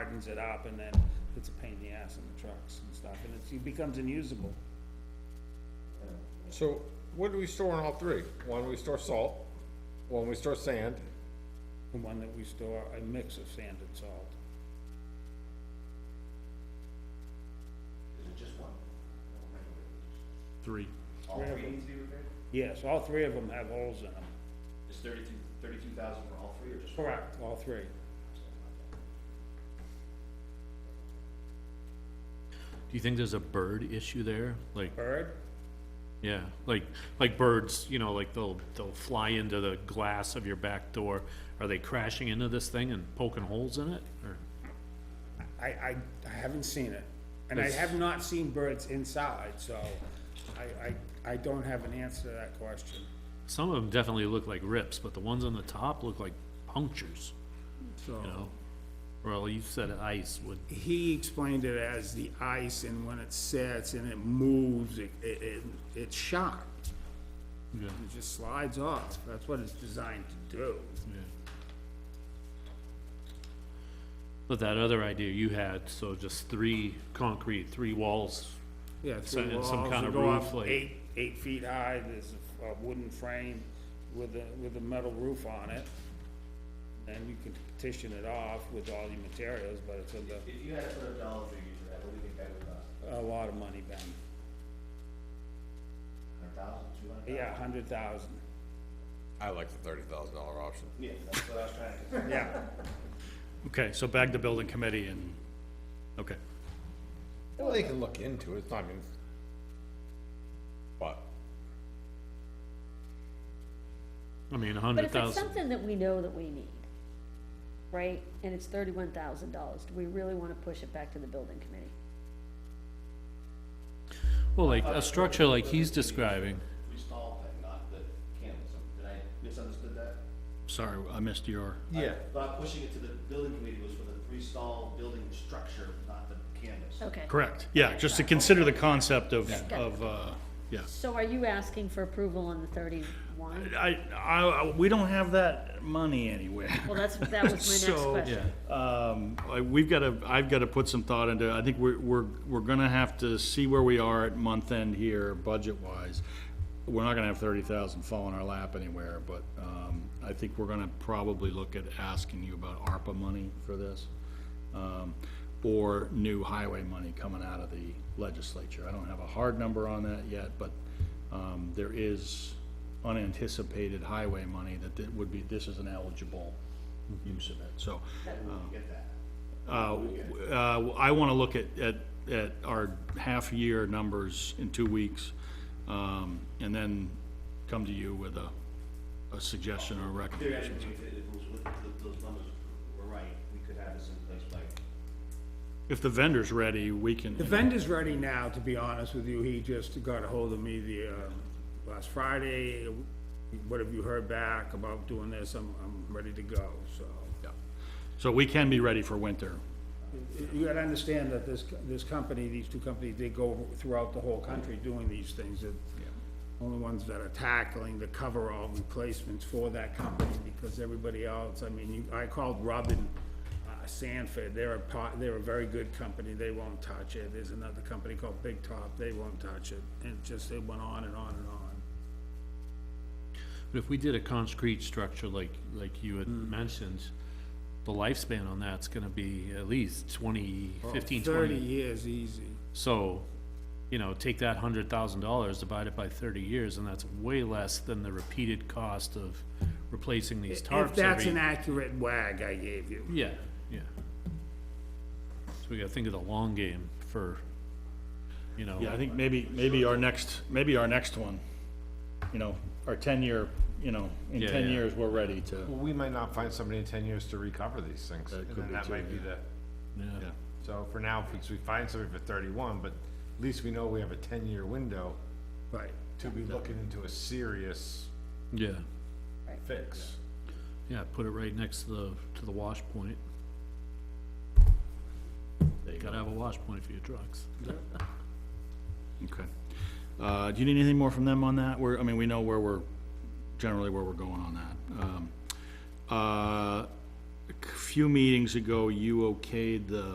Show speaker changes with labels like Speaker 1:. Speaker 1: hardens it up and then it's a pain in the ass on the trucks and stuff, and it's, it becomes unusable.
Speaker 2: So what do we store in all three? One, we store salt, one, we store sand,
Speaker 1: The one that we store, a mix of sand and salt.
Speaker 3: Is it just one?
Speaker 4: Three.
Speaker 3: All three need to be repaired?
Speaker 1: Yes, all three of them have holes in them.
Speaker 3: Is thirty-two, thirty-two thousand for all three or just? one?
Speaker 1: Correct. All three.
Speaker 4: Do you think there's a bird issue there? Like,
Speaker 1: Bird?
Speaker 4: yeah, like, like birds, you know, like they'll, they'll fly into the glass of your back door. Are they crashing into this thing and poking holes in it, or?
Speaker 1: I, I, I haven't seen it. And I
Speaker 4: It's-
Speaker 1: have not seen birds inside, so I, I, I don't have an answer to that question.
Speaker 4: Some of them definitely look like rips, but the ones on the top look like punctures,
Speaker 1: So
Speaker 4: you know? Well, you said ice would,
Speaker 1: he explained it as the ice and when it sets and it moves, it, it, it- it's sharp.
Speaker 4: yeah,
Speaker 1: It just slides off. That's what it's designed to do.
Speaker 4: yeah. But that other idea you had, so just three concrete, three walls,
Speaker 1: Yeah,
Speaker 4: So-
Speaker 1: three
Speaker 4: and some
Speaker 1: walls,
Speaker 4: kind
Speaker 1: you
Speaker 4: of
Speaker 1: go up
Speaker 4: roof, like-
Speaker 1: eight, eight feet high, there's a a wooden frame with a, with a metal roof on it. And you can petition it off with all your materials, but it's a,
Speaker 3: If you had to put a dollar figure to that, what do you think that would cost?
Speaker 1: a lot of money, Ben.
Speaker 3: Hundred thousand, two hundred thousand?
Speaker 1: Yeah, a hundred thousand,
Speaker 5: I like the thirty thousand dollar option.
Speaker 3: Yeah, that's what I was trying to.
Speaker 1: yeah.
Speaker 6: Okay, so back to building committee and, okay.
Speaker 2: well, they can look into it, it's not, I mean, but,
Speaker 4: I mean, a
Speaker 7: But
Speaker 4: hundred
Speaker 7: if it's
Speaker 4: thousand.
Speaker 7: something that we know that we need, right, and it's thirty-one thousand dollars, do we really wanna push it back to the building committee?
Speaker 4: Well, like, a structure like he's describing,
Speaker 3: Install thing, not the candles. Did I misunderstood that?
Speaker 6: Sorry, I missed your,
Speaker 2: yeah.
Speaker 3: But pushing it to the building committee was for the three-stall building structure, not the candles.
Speaker 7: Okay.
Speaker 6: correct, yeah, just to consider the concept of,
Speaker 7: Yeah.
Speaker 6: of, uh, yeah.
Speaker 7: So are you asking for approval on the thirty-one?
Speaker 6: I, I, I- we don't have that money anywhere.
Speaker 7: Well, that's, that was my next
Speaker 6: So,
Speaker 7: question.
Speaker 6: Um, I- we've gotta, I've gotta put some thought into, I think we're, we're, we're gonna have to see where we are at month end here, budget-wise. We're not gonna have thirty thousand fall in our lap anywhere, but, um, I think we're gonna probably look at asking you about ARPA money for this. Um, or new highway money coming out of the legislature. I don't have a hard number on that yet, but, um, there is unanticipated highway money that that would be, this is an eligible use of it, so.
Speaker 3: Get that.
Speaker 6: Uh, uh, I want to look at, at, at our half-year numbers in two weeks, um, and then come to you with a, a suggestion or a recommendation.
Speaker 3: Theoretically, if it- if it was with, if those numbers were right, we could have this in place by
Speaker 6: If the vendor's ready, we can.
Speaker 1: The vendor's ready now, to be honest with you. He just got a hold of me the, uh, last Friday. What have you heard back about doing this? I'm, I'm ready to go, so.
Speaker 6: Yeah. So we can be ready for winter.
Speaker 1: You gotta understand that this, this company, these two companies, they go throughout the whole country doing these things. The Only ones that are tackling the coverall replacements for that company, because everybody else, I mean, you, I called Robin uh, Sanford, they're a part, they're a very good company, they won't touch it. There's another company called Big Top, they won't touch it, and just, it went on and on and on.
Speaker 4: But if we did a concrete structure like, like you had
Speaker 1: Hmm.
Speaker 4: mentioned, the lifespan on that's gonna be at least twenty, fifteen,
Speaker 1: Oh, Thirty
Speaker 4: twenty.
Speaker 1: years easy.
Speaker 4: So, you know, take that hundred thousand dollars, divide it by thirty years, and that's way less than the repeated cost of replacing these
Speaker 1: If
Speaker 4: tarps
Speaker 1: that's an
Speaker 4: every.
Speaker 1: accurate wag I gave you.
Speaker 4: Yeah, yeah. So we gotta think of the long game for, you know.
Speaker 6: Yeah, I think maybe, maybe our next, maybe our next one, you know, our ten-year, you know, in
Speaker 4: Yeah,
Speaker 6: ten
Speaker 4: yeah.
Speaker 6: years, we're ready to,
Speaker 2: Well, we might not find somebody in ten years to recover these things, and
Speaker 6: could
Speaker 2: then
Speaker 6: be
Speaker 2: that
Speaker 6: too,
Speaker 2: might be the,
Speaker 4: Yeah.
Speaker 6: yeah.
Speaker 2: so for now, because we find somebody for thirty-one, but at least we know we have a ten-year window
Speaker 1: Right.
Speaker 2: to be looking into a serious
Speaker 4: Yeah,
Speaker 2: fix.
Speaker 4: yeah, put it right next to the, to the wash point.
Speaker 6: There you go.
Speaker 4: Gotta have a wash point for your trucks.
Speaker 6: Okay. Uh, do you need anything more from them on that? We're, I mean, we know where we're, generally where we're going on that. Um, uh, few meetings ago, you okayed the